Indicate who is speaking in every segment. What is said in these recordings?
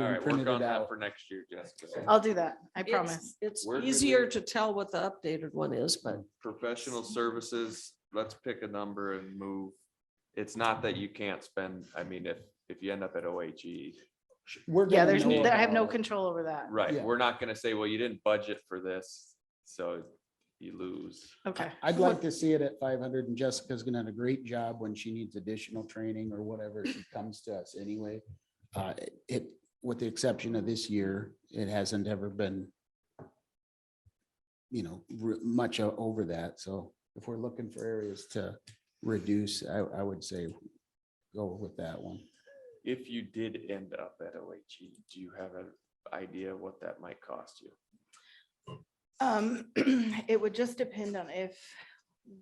Speaker 1: All
Speaker 2: and
Speaker 1: right, work
Speaker 2: printed
Speaker 1: on
Speaker 2: it
Speaker 1: that
Speaker 2: out.
Speaker 1: for next year, Jessica.
Speaker 2: Oh.
Speaker 3: I'll do that. I
Speaker 4: It's-
Speaker 3: promise.
Speaker 4: It's
Speaker 1: We're good
Speaker 4: easier
Speaker 1: with
Speaker 4: to tell what the updated one is, but
Speaker 1: Professional services, let's pick a number and move. It's not that you can't spend, I mean, if, if you end up at E. OHE,
Speaker 2: We're
Speaker 3: Yeah,
Speaker 2: gonna
Speaker 3: there's,
Speaker 2: know
Speaker 3: I have
Speaker 2: about
Speaker 3: no
Speaker 2: it.
Speaker 3: control over that.
Speaker 1: right,
Speaker 2: Yeah.
Speaker 1: we're not gonna say, well, you didn't budget for this, so you lose.
Speaker 3: Okay.
Speaker 2: I'd like to see it at five hundred and Jessica's gonna have a great job when she needs additional training or whatever. She comes to us anyway. Uh, it, with the exception of this year, it hasn't ever been you know, re- much o- over that. So if we're looking for areas to reduce, I, I would say go with that one.
Speaker 1: If you did end up at OHE, do you have an idea what that might cost you?
Speaker 3: Um, it would just depend on if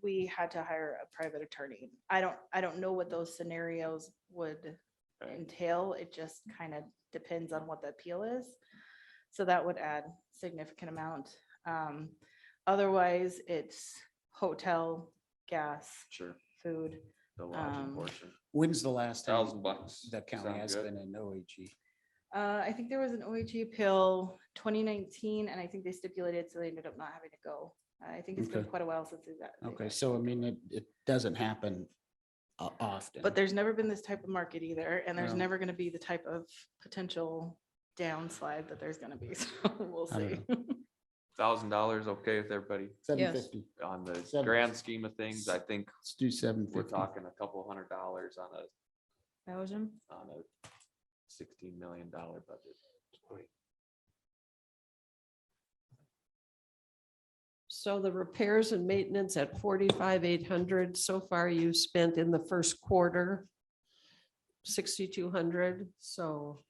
Speaker 3: we had to hire a private attorney. I don't, I don't know what those scenarios would
Speaker 1: Right.
Speaker 3: entail. It just kind of depends on what the appeal is. So that would add significant amount. Um, otherwise, it's hotel, gas,
Speaker 1: Sure,
Speaker 3: food.
Speaker 1: the lodging
Speaker 3: Um,
Speaker 1: portion,
Speaker 2: When's the last
Speaker 1: thousand
Speaker 2: time
Speaker 1: bucks.
Speaker 2: the county
Speaker 1: Sound
Speaker 2: has
Speaker 1: good?
Speaker 2: been in E? OHE?
Speaker 3: Uh, I think there was an OHG appeal twenty nineteen, and I think they stipulated, so they ended up not having to go. Uh, I think it's been
Speaker 2: Okay.
Speaker 3: quite a while since they've got- they've
Speaker 2: Okay,
Speaker 3: got-
Speaker 2: so I mean, it, it doesn't happen o- often.
Speaker 3: But there's never been this type of market either, and there's
Speaker 2: No.
Speaker 3: never gonna be the type of potential downslide that there's gonna be, so we'll
Speaker 2: I don't
Speaker 3: see.
Speaker 1: Thousand dollars, okay with everybody
Speaker 2: Seven
Speaker 4: Yes.
Speaker 2: fifty,
Speaker 1: on the
Speaker 2: Seven.
Speaker 1: grand scheme of things, I think
Speaker 2: let's do seven
Speaker 1: we're
Speaker 2: fifty.
Speaker 1: talking a couple hundred dollars on a,
Speaker 4: thousand,
Speaker 1: on a sixteen million dollar budget.
Speaker 4: so the repairs and maintenance at forty-five, eight hundred, so far you spent in the first quarter sixty-two hundred, so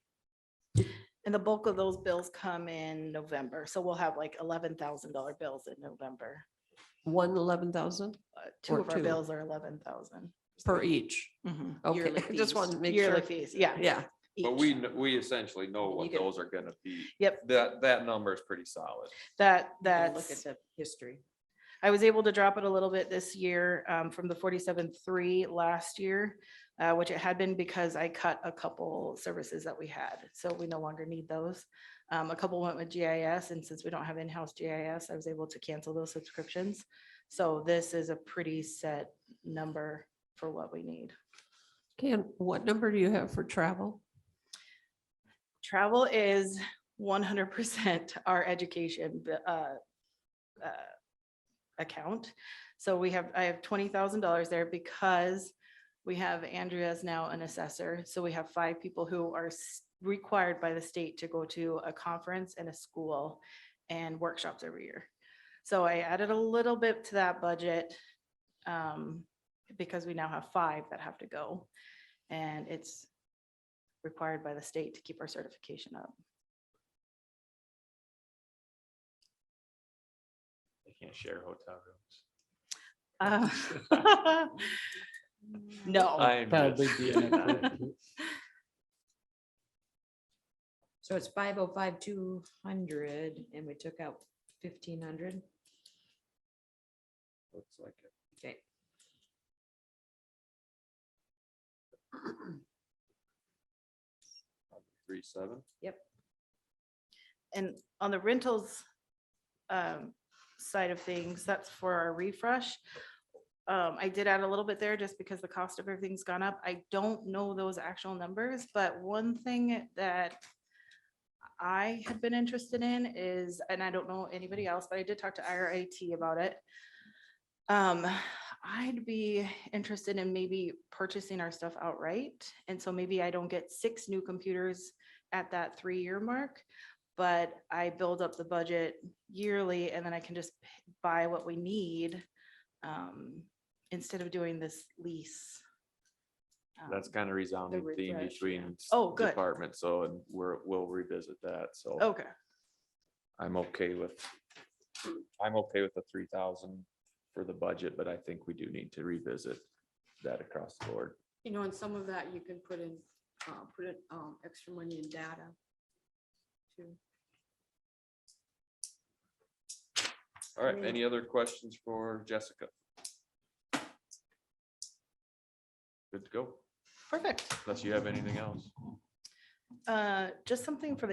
Speaker 3: And the bulk of those bills come in November, so we'll have like eleven thousand dollar bills in November.
Speaker 4: one eleven thousand
Speaker 3: Uh, Two
Speaker 4: Or
Speaker 3: of our
Speaker 4: two.
Speaker 3: bills are eleven thousand.
Speaker 4: per each. Mm-hmm. Okay, I just wanted to make
Speaker 3: Yearly
Speaker 4: sure.
Speaker 3: fees, yeah.
Speaker 4: Yeah,
Speaker 1: But
Speaker 3: each.
Speaker 1: we, kn- we essentially know
Speaker 4: You
Speaker 1: what
Speaker 4: get-
Speaker 1: those are gonna be.
Speaker 3: Yep.
Speaker 1: That, that number is pretty solid.
Speaker 3: That,
Speaker 4: and look
Speaker 3: that's.
Speaker 4: at the history.
Speaker 3: I was able to drop it a little bit this year um, from the forty-seven three last year, uh, which it had been because I cut a couple services that we had. So we no longer need those. Um, A couple went with GIS and since we don't have in-house GIS, I was able to cancel those subscriptions. So this is a pretty set number for what we need.
Speaker 4: Okay, and what number do you have for travel?
Speaker 3: Travel is one hundred percent our education b- uh, uh, account. So we have, I have twenty thousand dollars there because we have Andrea is now an assessor. So we have five people who are s- required by the state to go to a conference and a school and workshops every year. So I added a little bit to that budget um, because we now have five that have to go. And it's required by the state to keep our certification up.
Speaker 1: They can't share hotel rooms.
Speaker 3: Uh, No,
Speaker 1: I'm
Speaker 2: Probably
Speaker 1: just
Speaker 2: be an
Speaker 1: kidding.
Speaker 2: extra-
Speaker 5: So it's five oh five, two hundred, and we took out fifteen hundred.
Speaker 1: Looks like it.
Speaker 5: Okay.
Speaker 1: Three, seven.
Speaker 3: and on the rentals um, side of things, that's for our refresh. Um, I did add a little bit there just because the cost of everything's gone up. I don't know those actual numbers, but one thing that I had been interested in is, and I don't know anybody else, but I did talk to IRIT about it. Um, I'd be interested in maybe purchasing our stuff outright. And so maybe I don't get six new computers at that three-year mark. But I build up the budget yearly and then I can just p- buy what we need. Um, instead of doing this lease.
Speaker 1: That's
Speaker 3: Um,
Speaker 1: kind of resounding theme
Speaker 3: refresh, yeah.
Speaker 1: between. s-
Speaker 3: Oh, good.
Speaker 1: Departments, so and we're, we'll revisit that, so.
Speaker 3: Okay,
Speaker 1: I'm okay with, I'm okay with the three thousand for the budget, but I think we do need to revisit that across the board.
Speaker 6: You know, and some of that you can put in, uh, put in, um, extra money in data. too.
Speaker 1: All right, any other questions for Jessica? Good to go,
Speaker 3: perfect.
Speaker 1: unless you have anything else.
Speaker 3: Uh, just something for the